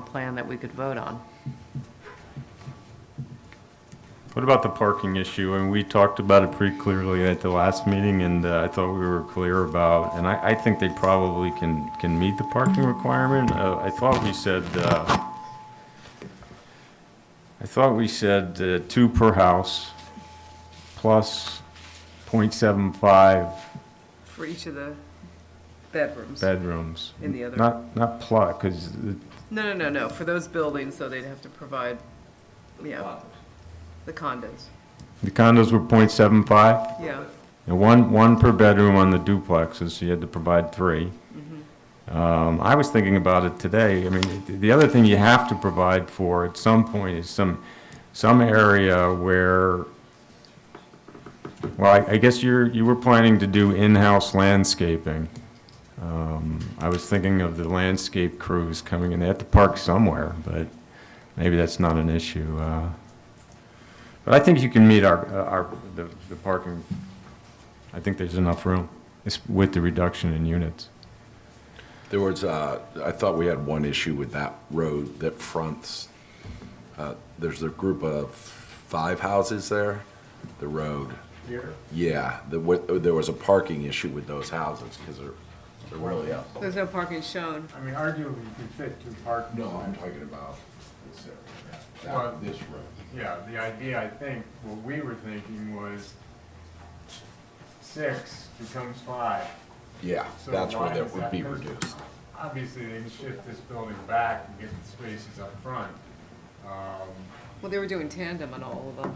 plan that we could vote on. What about the parking issue? And we talked about it pretty clearly at the last meeting, and uh, I thought we were clear about, and I, I think they probably can, can meet the parking requirement. Uh, I thought we said, uh, I thought we said uh, two per house, plus .75 for each of the bedrooms. bedrooms. In the other- Not, not plus, because No, no, no, no, for those buildings, so they'd have to provide, yeah, the condos, the condos were .75. yeah. And one, one per bedroom on the duplexes, so you had to provide three. Um, I was thinking about it today, I mean, th- the other thing you have to provide for at some point is some, some area where, well, I, I guess you're, you were planning to do in-house landscaping. Um, I was thinking of the landscape crews coming in, they have to park somewhere, but maybe that's not an issue. uh. But I think you can meet our, uh, our, the the parking I think there's enough room It's with the reduction in units. There was, uh, I thought we had one issue with that road that fronts, uh, there's a group of five houses there, the road. Yeah, the, wa- there was a parking issue with those houses because they're, they're really up. There's no parking shown. I mean, arguably, you could fit two parking. No, I'm talking about this area, Well- that- this road. Yeah, the idea, I think, what we were thinking was six becomes five. Yeah, So that's where why is that would that be person- reduced. Obviously, they can shift this building back and get the spaces up front. Um, Well, they were doing tandem on all of them.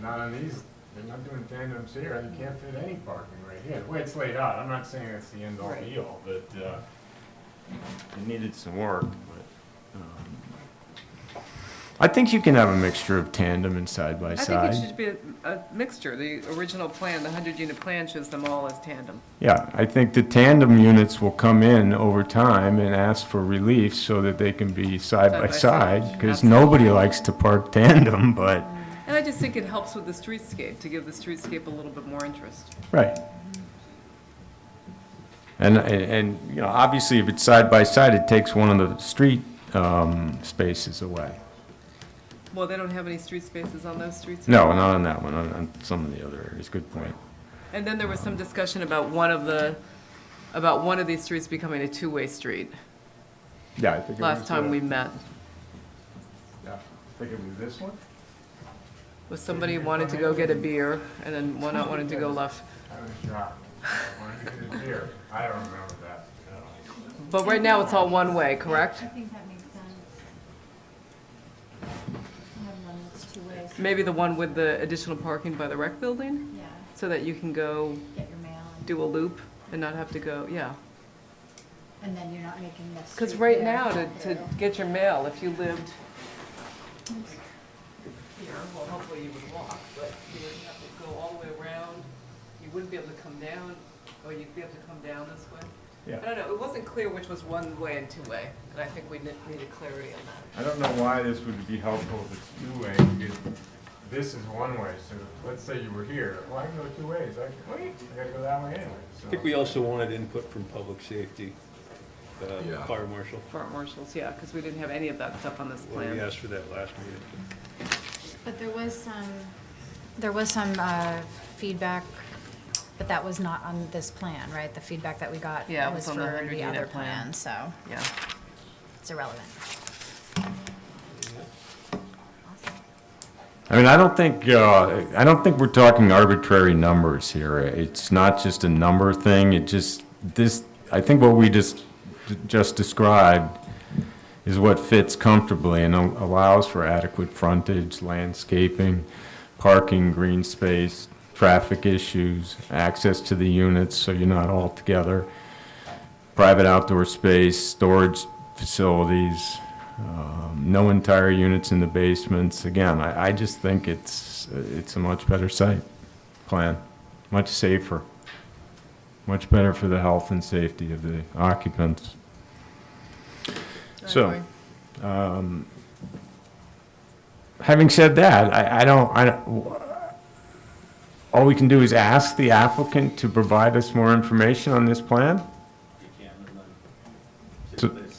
Not on these, they're not doing tandems here, you can't fit any parking right here, the way it's laid out, I'm not saying that's the end all Right. be all, but, uh, It needed some work, but. um, I think you can have a mixture of tandem and side by I think it side. should be a, a mixture. The original plan, the hundred unit plan shows them all as tandem. Yeah, I think the tandem units will come in over time and ask for relief so that they can be side by Side by side, side. Because nobody likes to park tandem, but, And I just think it helps with the streetscape, to give the streetscape a little bit more interest. right. And, and, you know, obviously if it's side by side, it takes one of the street, um, spaces away. Well, they don't have any street spaces on those streets. No, not on that one, on, on some of the other areas, good point. And then there was some discussion about one of the, about one of these streets becoming a two-way street, Yeah, I think it last was, time uh, we met. yeah, I think it was this one? Was somebody wanted to go get a beer, and then one not wanted to go left. I was dropped. I wanted to get it here. I don't remember that at all. But right now, it's all one way, correct? I think that makes sense. I have one that's two ways, Maybe the one with the additional parking by the rec building, yeah, so that you can go get your mail and, do a loop and not have to go, yeah. and then you're not making this. Because right now, to, to get your mail, if you lived here, well, hopefully you would walk, but you would have to go all the way around. You wouldn't be able to come down, or you'd be able to come down this way. Yeah. I don't know, it wasn't clear which was one way and two way, and I think we ne- needed clarity on that. I don't know why this would be helpful if it's two-way, because this is one way, so let's say you were here, well, I can go two ways, I can, wait, I gotta go that way anyway, so. I think we also wanted input from public safety, uh, Yeah. fire marshal. Fort marshals, yeah, because we didn't have any of that stuff on this Well, plan. We asked for that last meeting. But there was some, there was some, uh, feedback, but that was not on this plan, right? The feedback that we got Yeah, it was was on the for 100 the unit other plan. plan, so Yeah. it's irrelevant. I mean, I don't think, uh, I don't think we're talking arbitrary numbers here. It's not just a number thing, it just, this, I think what we just, just described is what fits comfortably and al- allows for adequate frontage, landscaping, parking, green space, traffic issues, access to the units, so you're not all together, private outdoor space, storage facilities, um, no entire units in the basements. Again, I, I just think it's, it's a much better site plan, much safer, much better for the health and safety of the occupants. So, um, having said that, I, I don't, I, don't- all we can do is ask the applicant to provide us more information on this plan? So-